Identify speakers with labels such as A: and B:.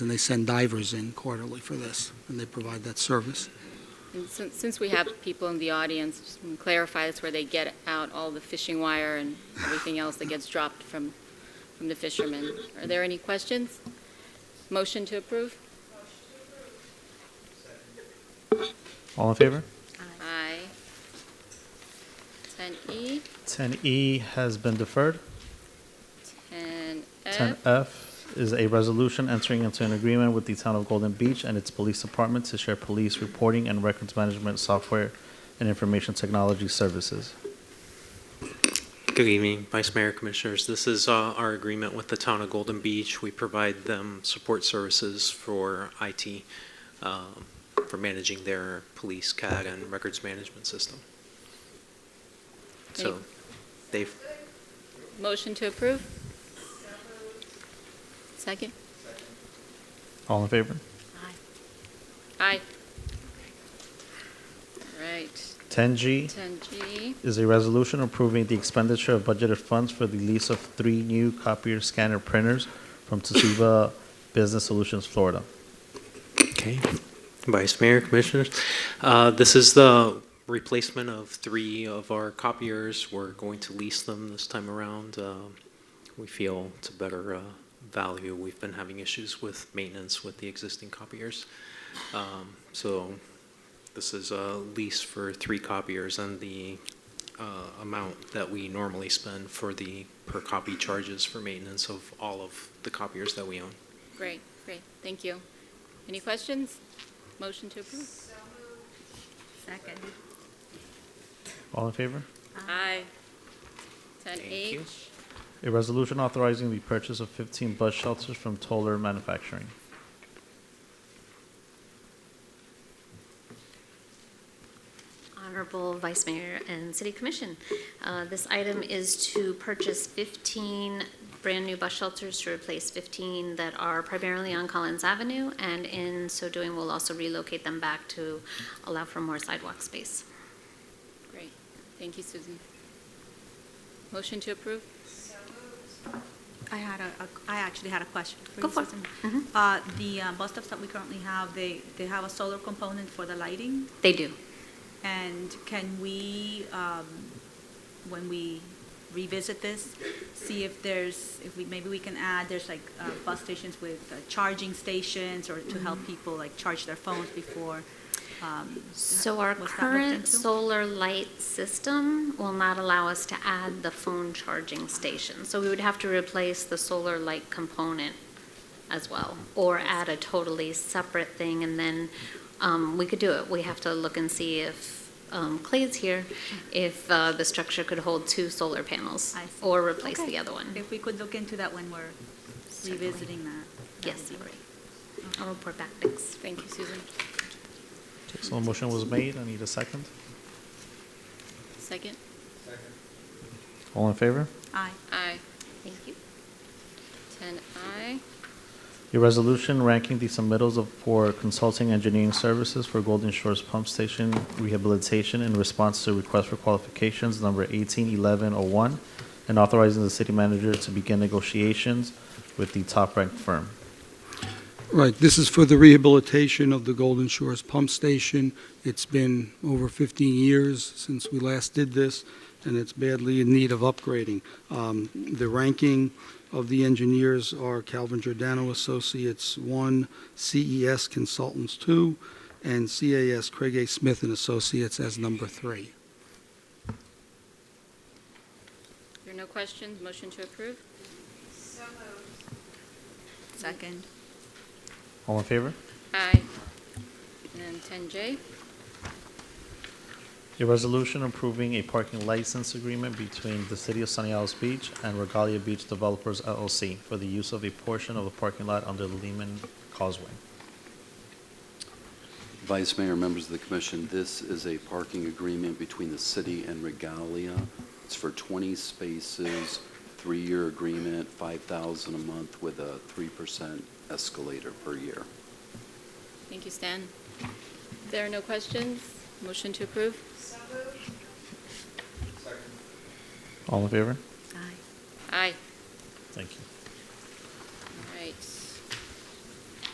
A: they send divers in quarterly for this, and they provide that service.
B: And since, since we have people in the audience, just wanna clarify, that's where they get out all the fishing wire and everything else that gets dropped from, from the fishermen. Are there any questions? Motion to approve?
C: All in favor?
B: Aye. E 10E,
C: 10E E has been deferred.
B: 10F,
C: 10F is a resolution entering into an agreement with the Town of Golden Beach and its Police Department to share police reporting and records management software and information technology services.
D: Good evening, Vice Mayor Commissioners. This is uh, our agreement with the town of Golden Beach. We provide them support services for IT, um, for managing their police CAD and records management system. So
B: Any-
D: they've,
B: motion to approve? Second?
C: All in favor?
B: Aye. Aye. All right,
C: 10G
B: 10G,
C: is a resolution approving the expenditure of budgeted funds for the lease of three new copier scanner printers from Toshiba Business Solutions, Florida.
D: okay, Vice Mayor Commissioners, uh, this is the replacement of three of our copiers. We're going to lease them this time around. Um, We feel it's a better uh, value. We've been having issues with maintenance with the existing copiers. Um, So this is a lease for three copiers and the uh, amount that we normally spend for the per copy charges for maintenance of all of the copiers that we own.
B: great, great, thank you. Any questions? Motion to approve?
E: Second.
C: All in favor?
B: Aye.
D: Thank
B: 10H,
D: you.
C: A resolution authorizing the purchase of 15 bus shelters from Toller Manufacturing.
E: Honorable Vice Mayor and City Commission, uh, this item is to purchase 15 brand-new bus shelters to replace 15 that are primarily on Collins Avenue, and in so doing, we'll also relocate them back to allow for more sidewalk space.
B: great, thank you, Susan. Motion to approve?
F: I had a, a- I actually had a question for
E: Go
F: you,
E: for it.
F: Susan.
E: Mhm.
F: Uh, the uh, bus stops that we currently have, they, they have a solar component for the lighting,
E: They do.
F: and can we, um, when we revisit this, see if there's, if we, maybe we can add, there's like, uh, bus stations with uh, charging stations, or to
E: Mm-hmm.
F: help people like charge their phones before, um.
E: So our
F: was that looked
E: current
F: into?
E: solar light system will not allow us to add the phone charging station. So we would have to replace the solar light component as well, or add a totally separate thing, and then um, we could do it. We have to look and see if, um, Clay's here, if uh, the structure could hold two solar panels,
F: I see.
E: or replace
F: Okay.
E: the other one.
F: If we could look into that when we're
E: Certainly.
F: revisiting that. that
E: Yes,
F: would be-
E: I'll report back, thanks.
B: Thank you, Susan.
C: So a motion was made. I need a second.
B: Second?
C: All in favor?
F: Aye.
B: Aye.
E: Thank you.
B: 10I,
C: A resolution ranking the submittals of, for consulting engineering services for Golden Shores Pump Station Rehabilitation in response to request for qualifications number 181101 and authorizing the city manager to begin negotiations with the top-ranked firm.
A: Right, this is for the rehabilitation of the Golden Shores Pump Station. It's been over 15 years since we last did this, and it's badly in need of upgrading. Um, The ranking of the engineers are Calvin Giordano Associates 1, CES Consultants 2, and CAS Craig A. Smith and Associates as number 3.
B: there are no questions, motion to approve?
F: Second.
C: All in favor?
B: Aye. And 10J,
C: A resolution approving a parking license agreement between the City of Sunny Isles Beach and Regalia Beach Developers LLC for the use of a portion of the parking lot under the Lehman Causeway.
G: Vice Mayor, members of the commission, this is a parking agreement between the city and Regalia. It's for 20 spaces, three-year agreement, 5,000 a month with a 3% escalator per year.
B: thank you, Stan. There are no questions, motion to approve?
C: All in favor?
B: Aye.
C: Thank you.